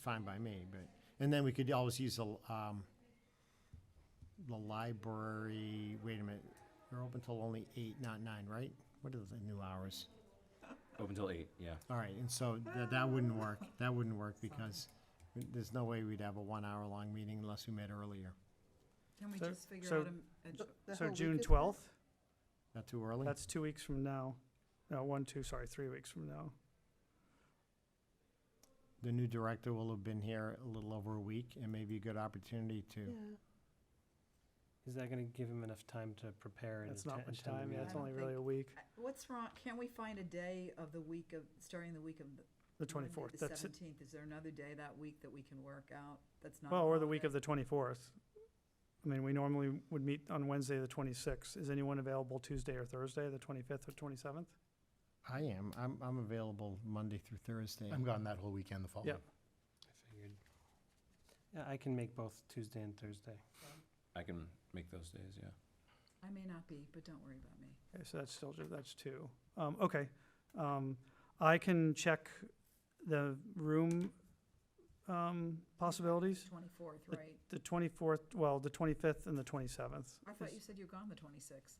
fine by me, but, and then we could always use the, um, the library, wait a minute, they're open till only eight, not nine, right? What are the new hours? Open till eight, yeah. All right, and so that, that wouldn't work, that wouldn't work because there's no way we'd have a one-hour-long meeting unless we met earlier. Can we So- just figure so- out a- a, j- So June twelfth, Not too early? that's two weeks from now. No, one, two, sorry, three weeks from now. The new director will have been here a little over a week and maybe a good opportunity to, Uh, Is that gonna give him enough time to prepare and That's atten- not attend much the time, yeah, it's I don't meeting? only think- really a week. I- what's wrong, can we find a day of the week of, starting the week of? the- The Monday, twenty-fourth, The that's it. seventeenth, is there another day that week that we can work out, that's not? a Well, or the week of holiday? the twenty-fourth. I mean, we normally would meet on Wednesday, the twenty-sixth. Is anyone available Tuesday or Thursday, the twenty-fifth or twenty-seventh? I am, I'm, I'm available Monday through Thursday. I'm gone that whole weekend the following. I figured. Yeah, I can make both Tuesday and Thursday. I can make those days, yeah. I may not be, but don't worry about me. Okay, so that's still, ju- that's two. Um, okay, um, I can check the room, um, possibilities. Twenty-fourth, The- right? The twenty-fourth, well, the twenty-fifth and the twenty-seventh. I thought you said you're gone the twenty-sixth.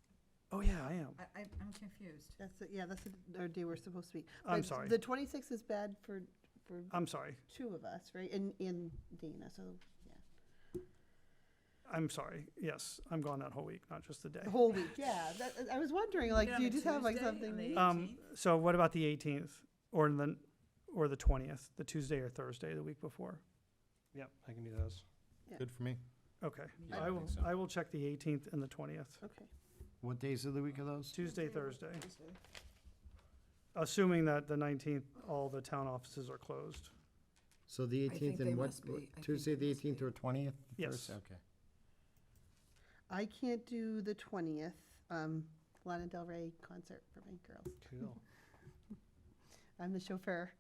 Oh, yeah, I am. I, I, I'm confused. That's, it, yeah, that's the- our day we're supposed to be. I'm But sorry. The twenty-sixth is bad for, for I'm sorry. two of us, right? And, and Dana, so I'm sorry. Yes, I'm gone that whole week, not just the day. the whole week, yeah. That, I was wondering, like, it do you on a just have like Tuesday, on the something? eighth? Um, 18th? so what about the eighteenth or the, or the twentieth, the Tuesday or Thursday, the week before? Yep, I can do those. Good for me. Okay. Me Yeah, I I think will, so. I will check the eighteenth and the twentieth, Okay. What days of the week are those? Tuesday, Thursday, Tuesday. assuming that the nineteenth, all the town offices are closed. So the think eighteenth they and what, must be. I think Tuesday, they the must eighteenth be. or twentieth? Yes. Okay. I can't do the twentieth, um, Lana Del Rey concert for my girls. Cool. Oh, I'm the chauffeur.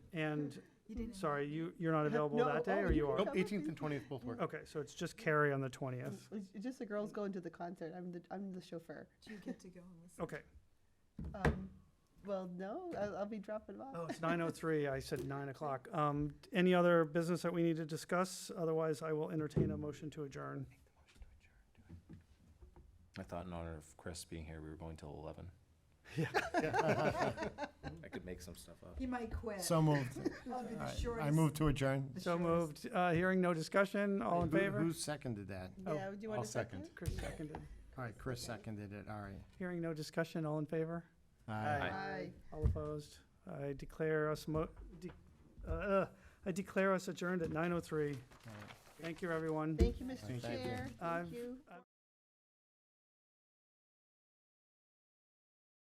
And, You didn't have sorry, you, you're not available No, that day oh, or you you can are? come. Nope, eighteenth and twentieth both work. Okay, so it's just Carrie on the twentieth. It's just the girls going to the concert. I'm the, I'm the chauffeur. Do you get to go and listen? Okay, Um, well, no, I'll, I'll be dropping them off. oh, it's nine oh three. I said nine o'clock. Um, any other business that we need to discuss? Otherwise, I will entertain a motion to adjourn. I thought in honor of Chris being here, we were going till eleven. Yeah. I could make some stuff up. You might quit. So moved. I'll be All the right. I shortest- move to adjourn. the So shortest. moved. Uh, hearing no discussion, all in Who- favor? Who seconded that? Yeah, Oh, do you want I'll a second? second. Chris seconded. All right, Chris seconded it, all right. Hearing no discussion, all in favor? Aye. Aye. All opposed? I declare us mo, de- uh, uh, I declare us adjourned at nine oh three. All right. Thank you, everyone. Thank you, Mr. Thank you. Chair. I've- Thank you.